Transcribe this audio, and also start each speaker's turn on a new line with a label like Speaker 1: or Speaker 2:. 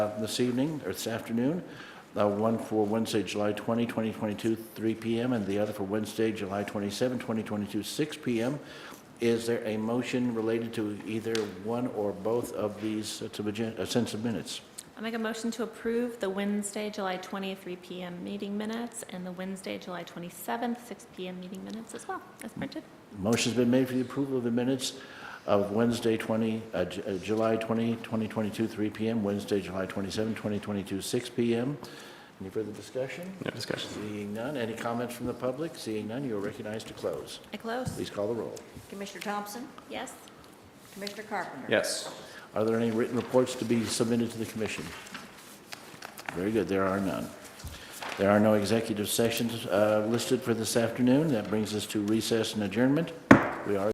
Speaker 1: uh, this evening, or this afternoon, uh, one for Wednesday, July 20, 2022, 3 PM, and the other for Wednesday, July 27, 2022, 6 PM. Is there a motion related to either one or both of these sets of agen- uh, sets of minutes?
Speaker 2: I'll make a motion to approve the Wednesday, July 20th, 3 PM meeting minutes, and the Wednesday, July 27th, 6 PM meeting minutes as well, as printed.
Speaker 1: Motion's been made for the approval of the minutes of Wednesday, 20, uh, J- uh, July 20, 2022, 3 PM, Wednesday, July 27, 2022, 6 PM. Any further discussion?
Speaker 3: No discussion.
Speaker 1: Seeing none, any comments from the public? Seeing none, you are recognized to close.
Speaker 2: I close.
Speaker 1: Please call the roll.
Speaker 4: Commissioner Thompson?
Speaker 2: Yes?
Speaker 4: Commissioner Carpenter?
Speaker 3: Yes.
Speaker 1: Are there any written reports to be submitted to the commission? Very good, there are none. There are no executive sessions uh, listed for this afternoon. That brings us to recess and adjournment. We are